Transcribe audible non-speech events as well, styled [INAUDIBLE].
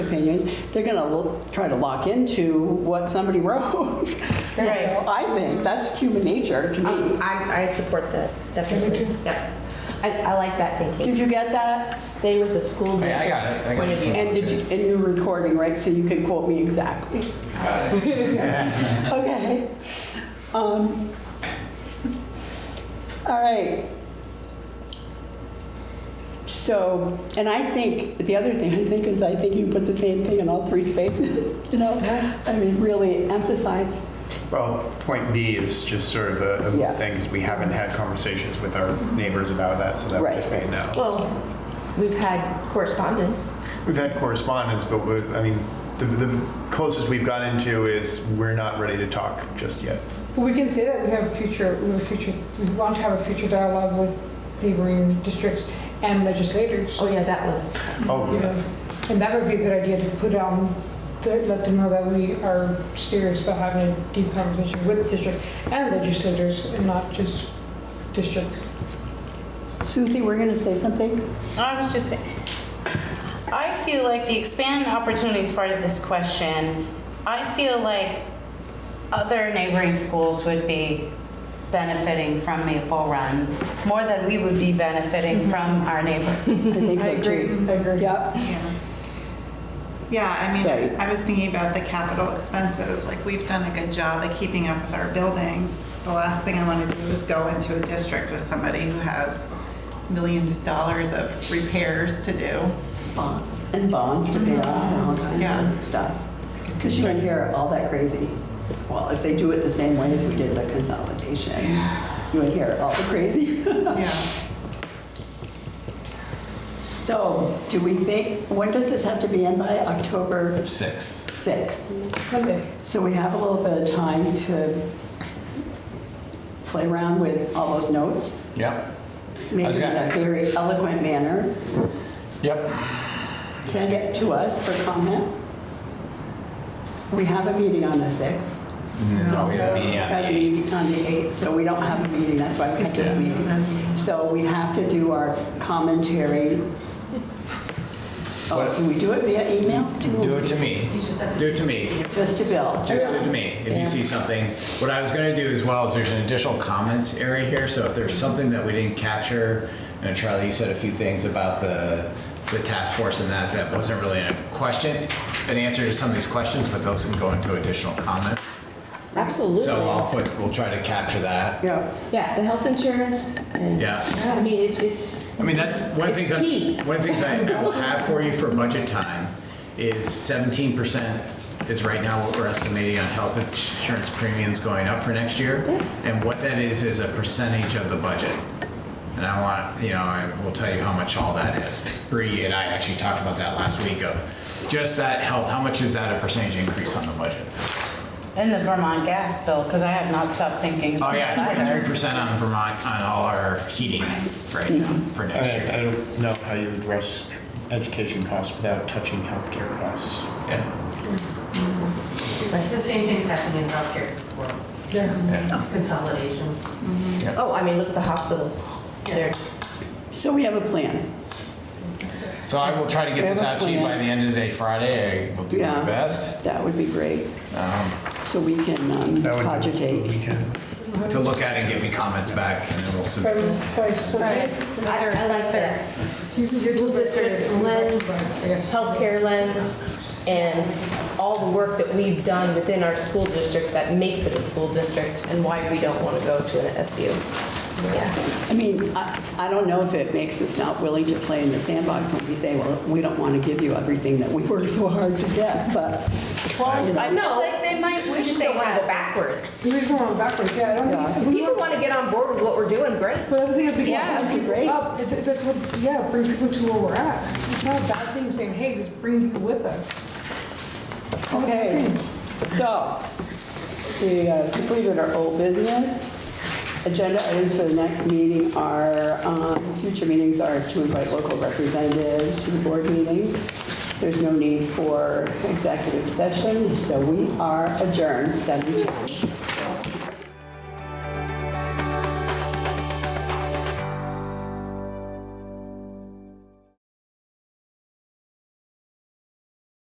opinions, they're going to try to lock into what somebody [LAUGHS] wrote. You know, Right. I think that's human nature to Um, me. I, I support that, definitely. Yeah. I, I like that Did thinking. you get that? Stay with the school I- I district got it. I got point of it. view. And did you, and you're recording, right? So you can quote me exactly. Okay. Um, All right. So, and I think, the other thing I think is I think you put the same thing in all three spaces, [LAUGHS] you know? I mean, really emphasize. Well, point B is just sort of a, Yeah. of things, we haven't had conversations with our neighbors about that, so that would Right. just be a no. Well, we've had correspondence. We've had correspondence, but we, I mean, the, the closest we've gotten to is we're not ready to talk just yet. Well, we can say that we have a future, we have a future, we want to have a future dialogue with neighboring districts and legislators. Oh, yeah, that was, Oh, You know, yes. And that would be a good idea to put on, to let them know that we are serious about having a deep conversation with districts and legislators and not just districts. Susie, we're going to say something? I was just saying, I feel like the expand opportunities part of this question, I feel like other neighboring schools would be benefiting from Maple Run more than we would be benefiting from our neighbors. I think so I too. agree. Yep, Yeah. Yeah, I mean, Right. I was thinking about the capital expenses, like, we've done a good job of keeping up with our buildings. The last thing I want to do is go into a district with somebody who has millions of dollars of repairs to do. bonds. And bonds to pay off and all kinds Yeah. of stuff. Because you don't hear all that crazy, well, if they do it the same way as we did the consolidation, you would hear all the crazy. [LAUGHS] Yeah. So, do we think, when does this have to be in by? October Sixth. 6th? Monday. So we have a little bit of time to play around with all those notes, Yep. maybe in a gonna- very eloquent manner. Yep. Send it to us for comment. We have a meeting on the 6th. No, we uh, have a meeting on the Got a 8th. meeting on the 8th, so we don't have a meeting, that's why we had this meeting. So we have to do our commentary. Oh, What- Can we do it via email? Do it to me. Do it to me. Just to Bill. Just do it to me. If you see something, what I was gonna do as well is there's an additional comments area here, so if there's something that we didn't capture, and Charlie, you said a few things about the, the task force and that, that wasn't really a question, an answer to some of these questions, but those can go into additional comments. absolutely. So I'll put, we'll try to capture that. Yeah. Yeah, the health insurance and, Yeah. I mean, it- it's, I mean, that's one of the It's things, key. I- one of the things I I will have for you for budget time is seventeen percent is right now what we're estimating on health insurance premiums going up for next year. And what that is, is a percentage of the budget. And I want, you know, I will tell you how much all that is. Bree and I actually talked about that last week of just that health, how much is that a percentage increase on the budget? And the Vermont gas bill, because I have not stopped thinking Oh, about yeah, that twenty-three either. percent on Vermont, on all our heating right now for I, next year. I don't know how you address education costs without touching healthcare costs. Yeah. The same thing's happening in healthcare world, Yeah. consolidation. oh, I mean, look at the hospitals. They're, So we have a plan. So I will try to We get have this a out to you by plan. the end of the day Friday. I will do Yeah. my best That would be great. um, So we can um, That would be- cogitate. We can. to look at and give me comments back, and then we'll By, submit. by Sunday. I, I like that. You can get School to the- district lens, I guess. healthcare lens, and all the work that we've done within our school district that makes it a school district and why we don't want to go to an SU. Yeah. I mean, I I don't know if it makes us not willing to play in the sandbox when we say, well, we don't want to give you everything that we worked so hard to get, but, you I know, know, Like, they might we just wish they don't want to had go this. backwards. We're going backwards, yeah, I don't think. People want to get on board with what we're doing, great. Well, the other thing is, we Yeah, that'd be can great. up, It- it- that's what, yeah, bring people to where we're at. It's not a bad thing saying, hey, just bring people with us. okay. So, we uh, completed our old business. Agenda items for the next meeting are, um, future meetings are to invite local representatives to the board meeting. There's no need for executive session, so we are adjourned, 7:00.